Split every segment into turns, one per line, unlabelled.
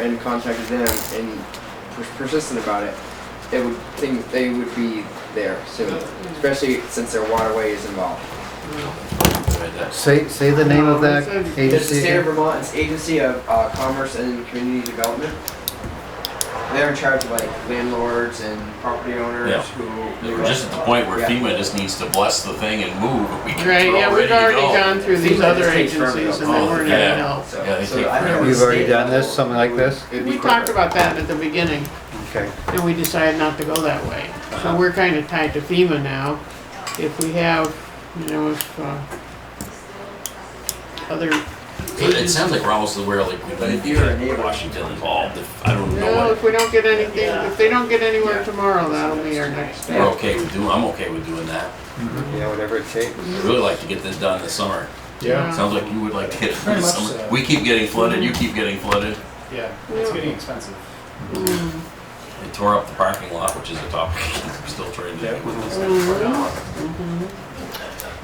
and contacted them and pers- persistent about it, they would think they would be there soon, especially since their waterway is involved.
Right there.
Say, say the name of that
It's the
agency
state of
again.
Vermont, it's Agency of uh, Commerce and Community Development. They're in charge of like landlords and property
Yeah.
owners who.
We're just at the point where
Yeah.
FEMA just needs to bless the thing and move. We can,
Right,
we're
yeah,
all
we've
ready
already
to go.
gone through
Seems
these
like it
other
takes forever to
agencies and
go.
they weren't any
Yeah.
help.
So-
Yeah, they
so
take
I think at
forever.
the
You've already
state
done this,
level,
something like
it would-
this?
it'd be
We talked
quicker.
about that at the beginning
Okay,
and we decided not to go that way. So we're kind of tied to FEMA now. If we have, you know, if, uh, other.
But it sounds like we're almost aware, like, we need
If you're a
to get
neighbor-
Washington involved. If, I don't know
No,
what,
if we don't get anything, if they don't get
Yeah.
anywhere tomorrow, that'll be our next
we're
step.
okay with doing, I'm okay with doing that.
yeah, whatever it takes.
Mm-hmm.
I'd really like to get this done this summer.
Yeah.
Sounds like you would like to get it done
Very
this
much
summer.
so.
We keep getting flooded,
Mm-hmm.
you keep getting flooded.
Yeah, it's
Yeah.
getting expensive.
Mm,
They tore up the parking lot, which is a topic we're still trying to deal with.
mhm.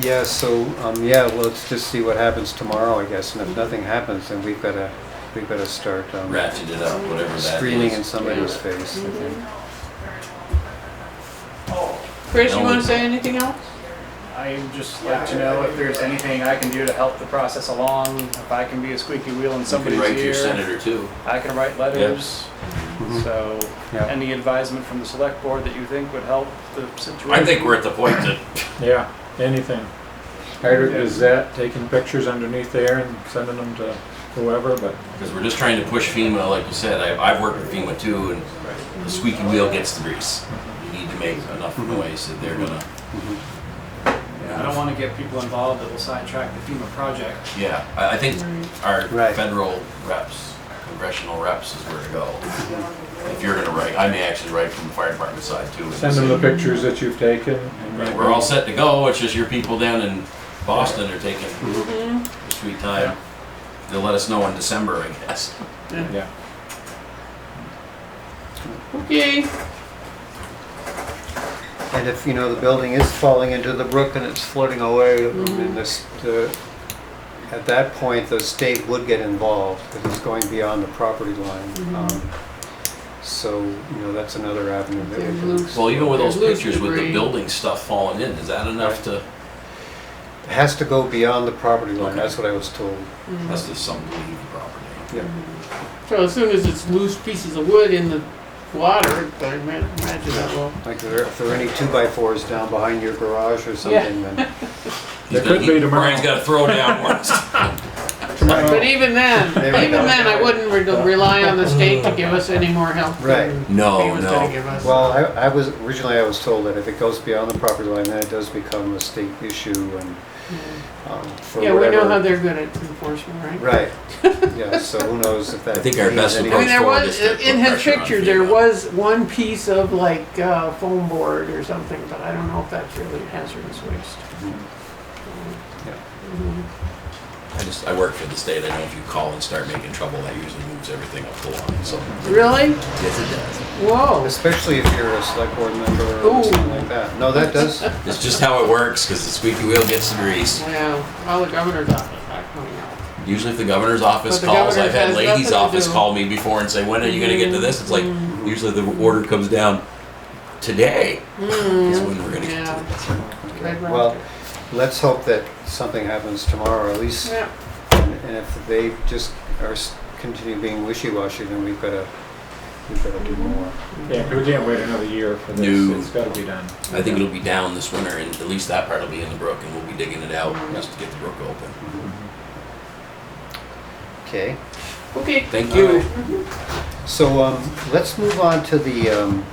Yeah, so, um, yeah, well, let's just see what happens tomorrow, I guess, and if nothing happens, then we've gotta, we've gotta start, um,
Ratchet it up, whatever that is.
screaming in somebody's face, I think.
Chris, you
No.
wanna say anything else?
I would just like to know if there's anything I can do to help the process along, if I can be a squeaky wheel
You
in
could
somebody's
write to your
ear.
senator too.
I can write letters, so
Yeah.
any advisement from the select board that you think would help the situation.
I think we're at the point that
Yeah, anything. Hydrant Gazette, taking pictures underneath there and sending them to whoever, but
Because we're just trying to push FEMA, like you said, I've, I've worked with FEMA too, and the squeaky wheel gets the grease. You need to make enough
Mm-hmm.
noise that they're gonna,
I don't wanna get people involved that will sidetrack the FEMA project.
yeah, I, I think our
Right.
federal reps, congressional reps is where to go. If you're gonna write, I may actually write from the fire department side too. and
Mm-hmm. send them the
say,
pictures that you've taken. and
"Right, We're all set to go, it's just your people down in Boston are taking
Mm-hmm.
a sweet time. They'll let us know in December, I guess.
Yeah.
Okay,
And if, you know, the building is falling into the brook and it's floating away, I mean, this, the, at that point, the state would get involved, because it's going beyond the property line. Um, So, you know, that's another avenue that we
There's
can,
loose-
Well, even with those
there's loose
pictures with the
debris.
building stuff falling in, is that enough to,
it has to go beyond the property line,
Okay.
that's what I was told.
that's just something to leave property.
Yeah,
Mm-hmm. So as soon as it's loose pieces of wood in the water, I ima- imagine that will.
like there- if there are any two-by-fours down behind your garage or something, then,
He's
There
been-
could be tomorrow.
Brian's got to throw down once.
But even then,
There we
even
go.
then, I wouldn't re- rely on the state to give us any more help.
Right.
than he
Oh, No,
was gonna
no.
give us.
well, I, I was, originally I was told that if it goes beyond the property line, then it does become a state issue and, um, for
Hmm. Yeah,
whatever.
we know how they're good at enforcement, right?
Right. Yeah, so who knows if that.
I think our
means
best
anything.
I mean, there
Forward
was,
is to
in his
put pressure on
picture, there
FEMA.
was one piece of like uh, foam board or something, but I don't know if that's really hazardous waste.
I just, I work for the state. I know if you call and start making trouble, that usually moves everything up the line, so.
Really?
Yes, it
Whoa.
Especially if you're a select board member or something
Ooh.
like that. No, that does,
does. It's just how it works, because the squeaky wheel gets the grease.
Wow. Well, the governor's office not coming out.
Usually if the governor's office
But the
calls,
governor
I've had
has
ladies'
nothing to
office
do. Mm.
call me before and say, when are you gonna get to this? It's like, usually the order comes down, today is when we're gonna get to
Hmm, Yeah.
this.
Red
well,
Rocket.
let's hope that something happens tomorrow, at least,
Yeah.
and and if they just are, s- continue being wishy-washy, then we've gotta, we've gotta do more.
Yeah, we can't wait another year for this.
No.
It's gotta be done.
I think it'll be down this winter, and at least that part will be in the brook, and we'll be digging it out just to get the brook open.
Okay,
Okay.
Thank you.
so, um, let's move on to the, um,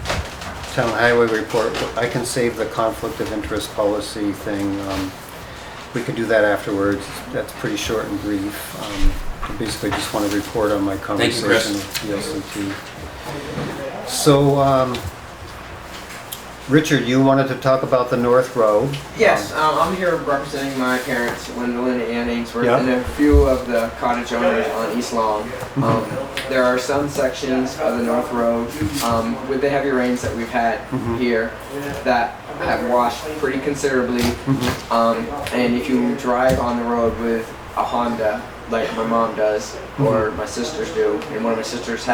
town highway report. I can save the conflict of interest policy thing, um, we could do that afterwards. That's pretty short and brief. Um, I basically just want to report on my
Thank you,
conversation
Chris.
with the LCT. So, um, Richard, you wanted to talk about the North Road.
Yes, um, I'm here representing my parents, Gwendolyn and Ainsworth,
Yeah.
and a few of the cottage owners on East Long. Um, there are some sections of the North Road um, with the heavy rains that we've had here that have washed pretty considerably.
Mm-hmm.
Um, and if you drive on the road with a Honda, like my mom does, or my sisters do, and one of my sisters has.